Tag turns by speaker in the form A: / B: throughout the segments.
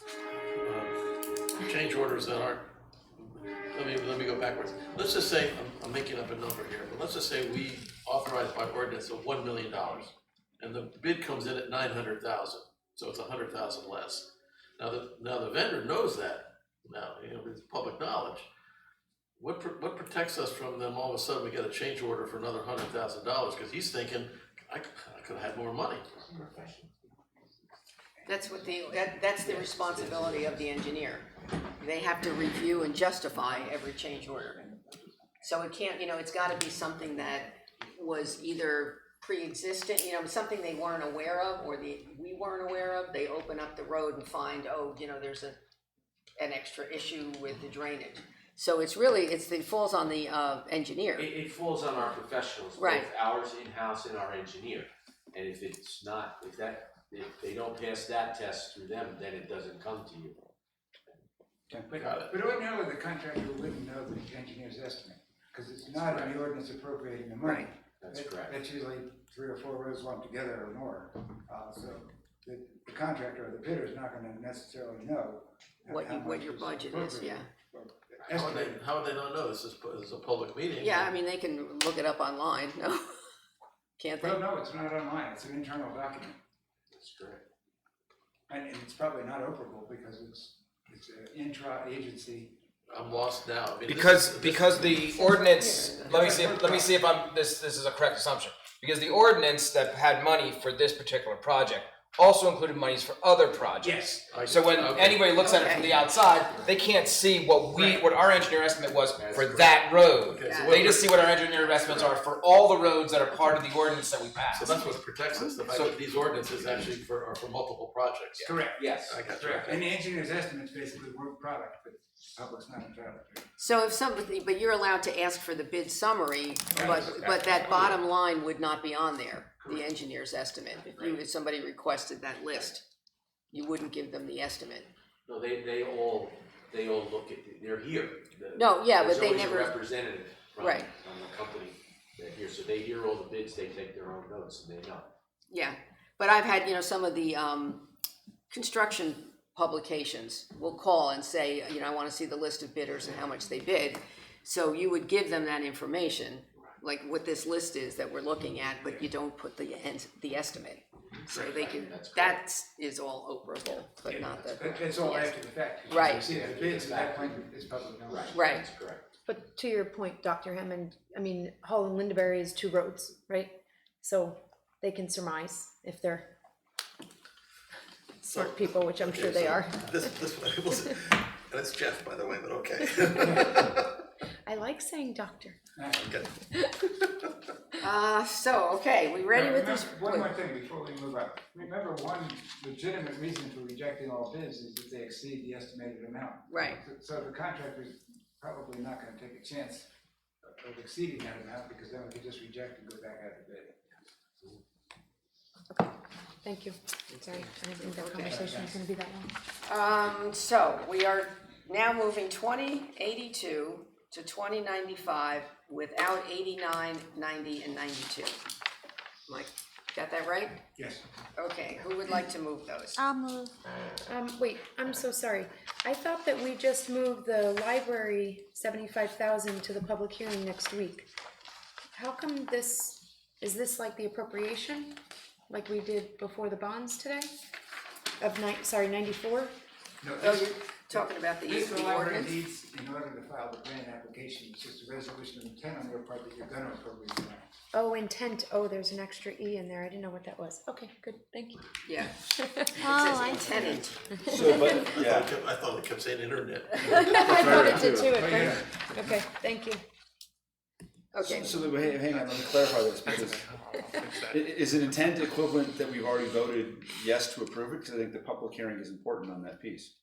A: Um, change orders that aren't, let me, let me go backwards. Let's just say, I'm, I'm making up a number here, but let's just say we authorize by ordinance of one million dollars. And the bid comes in at nine hundred thousand, so it's a hundred thousand less. Now, the, now the vendor knows that, now, you know, it's public knowledge. What, pr- what protects us from them, all of a sudden, we get a change order for another hundred thousand dollars, cause he's thinking, I, c- I could've had more money.
B: That's what the, that, that's the responsibility of the engineer. They have to review and justify every change order. So it can't, you know, it's gotta be something that was either pre-existent, you know, something they weren't aware of or the, we weren't aware of. They open up the road and find, oh, you know, there's a, an extra issue with the drainage. So it's really, it's, it falls on the, uh, engineer.
C: It, it falls on our professionals, both
B: Right.
C: ours in-house and our engineer. And if it's not, if that, if they don't pass that test through them, then it doesn't come to you.
A: Got it.
D: But, but ordinarily, the contractor wouldn't know the engineer's estimate, because it's not in the ordinance appropriating the money.
C: That's
D: That-
C: correct.
D: That's usually three or four rows lumped together or more, uh, so the the contractor or the bidder is not gonna necessarily know.
B: What
D: how
B: you, what
D: much
B: your
D: is
B: budget is, yeah.
D: appropriate.
A: How would
D: Estimate.
A: they, how would they not know? This is, pu- this is a public meeting.
B: Yeah, I mean, they can look it up online, no? Can't they?
D: Well, no, it's not online, it's an internal document,
C: That's correct.
D: and, and it's probably not operable because it's, it's an intra-agency.
A: I'm lost now. I mean, this
E: Because
A: is-
E: because the ordinance, let me see, if- let me see if I'm, this, this is a correct assumption. Because the ordinance that had money for this particular project also included monies for other projects.
A: I-
E: So when
A: okay.
E: anybody looks at it from the outside, they can't see what we, what our engineer estimate was for that road.
A: Okay, so
E: They
A: what-
E: just see what our engineer estimates are for all the roads that are part of the ordinance that we
A: So
E: passed.
A: that's what protects us, the fact that these ordinances actually for, are for multiple projects.
D: Correct.
C: Yes.
A: I got you.
D: Correct, and the engineer's estimate's basically work product, but the public's not entitled to it.
B: So if somebody, but you're allowed to ask for the bid summary, but,
D: Right.
B: but that bottom line would not be on there, the engineer's estimate. If you, if somebody requested that list, you wouldn't give them the estimate.
C: No, they, they all, they all look at, the- they're here. The-
B: No, yeah, but they
C: There's
B: never-
C: always a representative from, from
B: Right.
C: the company that here, so they hear all the bids, they take their own notes and they know.
B: Yeah, but I've had, you know, some of the, um, construction publications will call and say, you know, I wanna see the list of bidders and how much they bid. So you would give them that information, like what this list is that we're looking at, but you don't put the end, the estimate. So they can,
C: That's correct.
B: that is all operable, but not the.
D: That- That's all
B: the
D: after the fact. because
B: Right.
D: you See, the bids at that point is public knowledge.
B: Right.
C: That's correct.
F: But to your point, Dr. Hammond, I mean, Hall and Lindaberry is two roads, right? So they can surmise if they're smart people, which I'm sure they are.
A: This, this one, was- and it's Jeff, by the way, but okay.
F: I like saying doctor.
B: Uh, so, okay, we ready
D: Now,
B: with these?
D: remember- One more thing before we move on. Remember, one legitimate reason for rejecting all bids is that they exceed the estimated amount.
B: Right.
D: So- So the contractor's probably not gonna take a chance of exceeding that amount, because then we could just reject and go back out to bid.
F: Thank you. Sorry, I didn't think that conversation was gonna be that long.
B: Um, so we are now moving twenty eighty-two to twenty ninety-five without eighty-nine, ninety, and ninety-two. Mike, got that right?
D: Yes.
B: Okay, who would like to move those?
G: I'll move.
F: Um, wait, I'm so sorry. I thought that we just moved the library seventy-five thousand to the public hearing next week. How come this, is this like the appropriation, like we did before the bonds today? Of nine, sorry, ninety-four?
D: No,
B: Oh,
D: this,
B: you're talking about the
D: this
B: use of
D: the
B: the
D: library
B: ordinance?
D: needs in order to file the grant application, it's just a resolution of intent on your part that you're gonna appropriate the amount.
F: Oh, intent, oh, there's an extra E in there, I didn't know what that was. Okay, good, thank you.
B: Yeah, it
G: Oh,
B: says
G: I see.
B: intended.
H: So, but,
A: I
H: yeah,
A: kept- I thought it kept saying internet.
F: I thought it did too
D: But
F: at
D: yeah,
F: first. Okay, thank you.
B: Okay,
H: so the- hang hang on, let me clarify this, because i- is an intent equivalent that we've already voted yes to approve it, because I think the public hearing is important on that piece.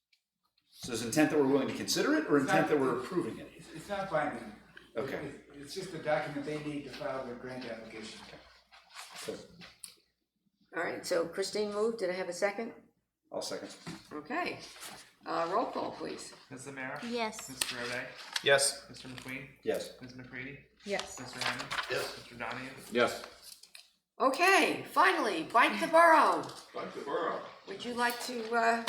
H: So is intent that we're willing to consider it, or intent that we're approving it?
D: it's- it's not binding.
H: Okay.
D: It- It's just a document they need to file their grant application.
H: So,
B: all right, so Christine moved, did I have a second?
H: I'll second.
B: Okay, uh, roll call, please.
I: Ms. Zamara?
G: Yes.
I: Mr. O'Day?
E: Yes.
I: Mr. McQueen?
H: Yes.
I: Ms. McCready?
F: Yes,
I: Mr. Hammond?
A: Yes.
I: Mr. Donahue?
H: Yes.
B: Okay, finally, bite the borough. Bite the borough. Would you like to, uh,